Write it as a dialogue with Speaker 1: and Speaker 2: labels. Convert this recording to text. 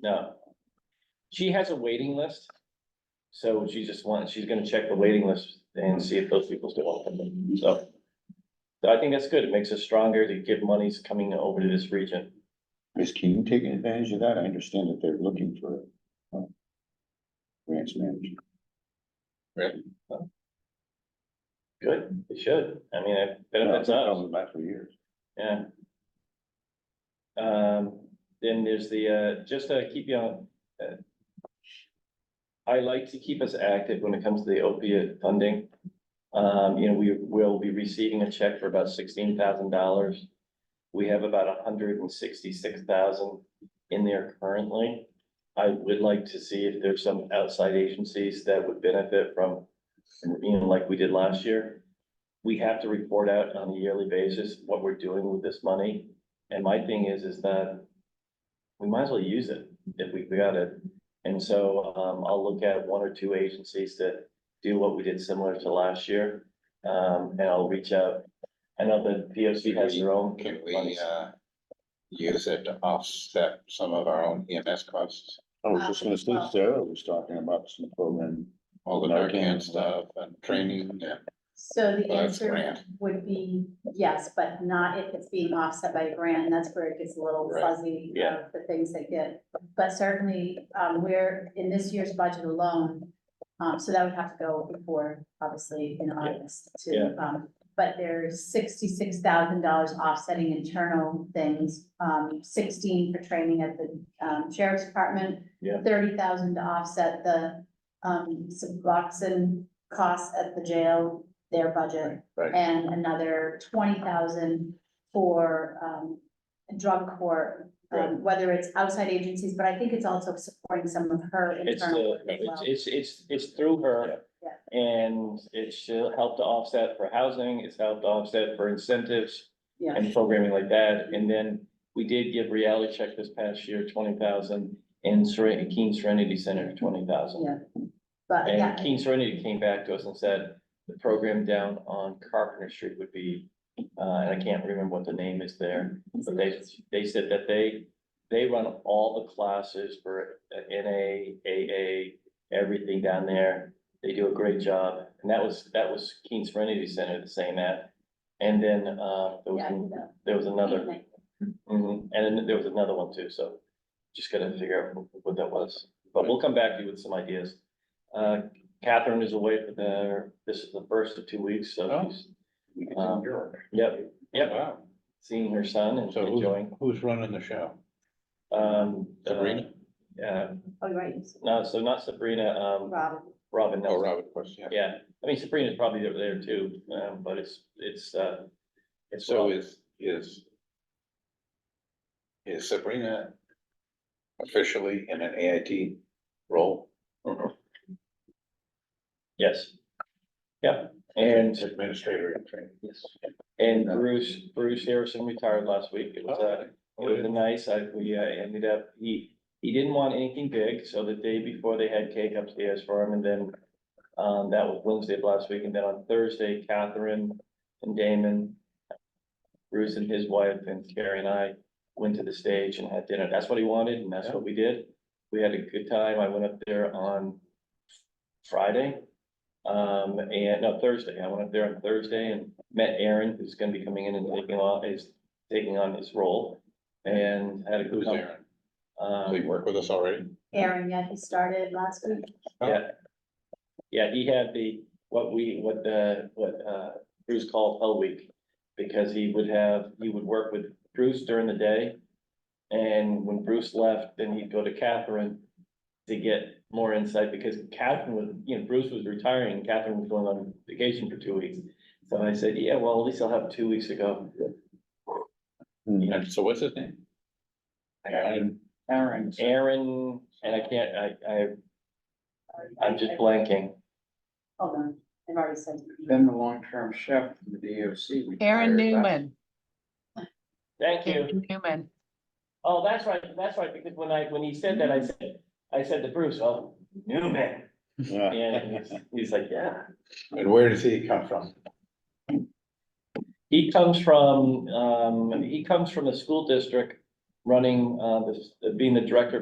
Speaker 1: No. She has a waiting list. So she just wants, she's gonna check the waiting list and see if those people still want to come in, so. so I think that's good. It makes us stronger to give monies coming over to this region.
Speaker 2: Is Keene taking advantage of that? I understand that they're looking for. uh, Grants manager.
Speaker 1: Good, it should. I mean, it benefits us,
Speaker 2: Probably about for years.
Speaker 1: yeah. Um, then there's the, uh, just to keep you on. uh, I like to keep us active when it comes to the opiate funding. Um, you know, we will be receiving a check for about sixteen thousand dollars. We have about hundred and sixty-six thousand in there currently. I would like to see if there's some outside agencies that would benefit from, you know, like we did last year. We have to report out on a yearly basis what we're doing with this money. And my thing is, is that we might as well use it if we got it. And so, um, I'll look at one or two agencies that do what we did similar to last year. Um, and I'll reach out. I know the P O C has their own.
Speaker 3: Can we, uh, use it to offset some of our own EMS costs,
Speaker 2: I was just gonna say, Sarah was talking about some program.
Speaker 3: all the Narcan stuff and training and
Speaker 4: So the
Speaker 3: Well, that's
Speaker 4: answer
Speaker 3: grant.
Speaker 4: would be yes, but not if it's being offset by a grant, and that's where it gets a little
Speaker 3: Right.
Speaker 4: fuzzy.
Speaker 1: Yeah.
Speaker 4: of The things that get, but certainly, um, we're in this year's budget alone. Um, so that would have to go before, obviously, in August
Speaker 1: Yeah.
Speaker 4: to, um, but there's sixty-six thousand dollars offsetting internal things. Um, sixteen for training at the, um, sheriff's department.
Speaker 1: Yeah.
Speaker 4: Thirty thousand to offset the, um, Suboxone costs at the jail, their budget.
Speaker 3: Right, right.
Speaker 4: And another twenty thousand for, um, drug court.
Speaker 3: Right.
Speaker 4: Um, whether it's outside agencies, but I think it's also supporting some of her
Speaker 1: It's,
Speaker 4: internal
Speaker 1: uh,
Speaker 4: work as well.
Speaker 1: it's, it's, it's, it's through her.
Speaker 4: Yeah.
Speaker 1: And it should help to offset for housing, it's helped to offset for incentives
Speaker 4: Yeah.
Speaker 1: and programming like that. And then we did give reality check this past year, twenty thousand, and Seren- Keen Serenity Center, twenty thousand.
Speaker 4: Yeah. But
Speaker 1: And
Speaker 4: yeah,
Speaker 1: Keen Serenity came back to us and said, the program down on Carpenter Street would be, uh, and I can't remember what the name is there. But they, they said that they, they run all the classes for uh, NA, AA, everything down there. They do a great job. And that was, that was Keen Serenity Center, the same app. And then, uh, there
Speaker 4: yeah,
Speaker 1: was,
Speaker 4: no,
Speaker 1: there was another,
Speaker 4: anyway,
Speaker 1: mhm, and then there was another one too, so just gotta figure out what that was. But we'll come back to you with some ideas. Uh, Catherine is away for the, this is the first of two weeks, so
Speaker 3: Oh.
Speaker 1: she's, um, yep, yep,
Speaker 3: Wow.
Speaker 1: seeing her son and
Speaker 3: So who's-
Speaker 1: enjoying.
Speaker 3: Who's running the show?
Speaker 1: Um. uh,
Speaker 3: Sabrina?
Speaker 1: Yeah,
Speaker 4: Oh, you're right,
Speaker 1: no, so not Sabrina, um,
Speaker 4: Rob,
Speaker 1: Robin
Speaker 3: Oh,
Speaker 1: Nelson.
Speaker 3: Robert, of course, yeah.
Speaker 1: Yeah, I mean Sabrina's probably over there too, um, but it's, it's, uh. It's,
Speaker 3: So
Speaker 1: Robin.
Speaker 3: is, is. Is Sabrina officially in an AIT role?
Speaker 1: yes. Yeah, and,
Speaker 3: Administrator in training. Yes.
Speaker 1: and Bruce, Bruce Harrison retired last week. It was, uh, It was a nice, I, we uh, ended up, he, he didn't want anything big, so the day before they had cake upstairs for him and then. Um, that was Wednesday of last week and then on Thursday, Catherine and Damon. Bruce and his wife and Carrie and I went to the stage and had dinner. That's what he wanted and that's what we did. We had a good time. I went up there on Friday. Um, and no, Thursday. I went up there on Thursday and met Aaron, who's gonna be coming in and taking on, is taking on his role. And had a good
Speaker 3: Who's
Speaker 1: time.
Speaker 3: Aaron? Does he
Speaker 1: Um,
Speaker 3: work with us already?
Speaker 4: Aaron, yeah, he started last week.
Speaker 1: yeah. Yeah, he had the, what we, what the, what, uh, Bruce called Hell Week. Because he would have, he would work with Bruce during the day. And when Bruce left, then he'd go to Catherine to get more insight because Catherine was, you know, Bruce was retiring, and Catherine was going on vacation for two weeks. So I said, yeah, well, at least I'll have two weeks to go.
Speaker 3: And so what's his name? Aaron.
Speaker 5: Aaron.
Speaker 1: Aaron, and I can't, I, I, I'm just blanking.
Speaker 4: Hold on, I've already said.
Speaker 5: Been the long-term chef for the DOC.
Speaker 6: Aaron
Speaker 5: retired last-
Speaker 6: Newman,
Speaker 1: Thank you.
Speaker 6: Aaron Newman.
Speaker 1: Oh, that's right, that's right, because when I, when he said that, I said, I said to Bruce, oh, Newman. And he's, he's like, yeah.
Speaker 3: And where does he come from?
Speaker 1: He comes from, um, he comes from the school district running, uh, the- being the director of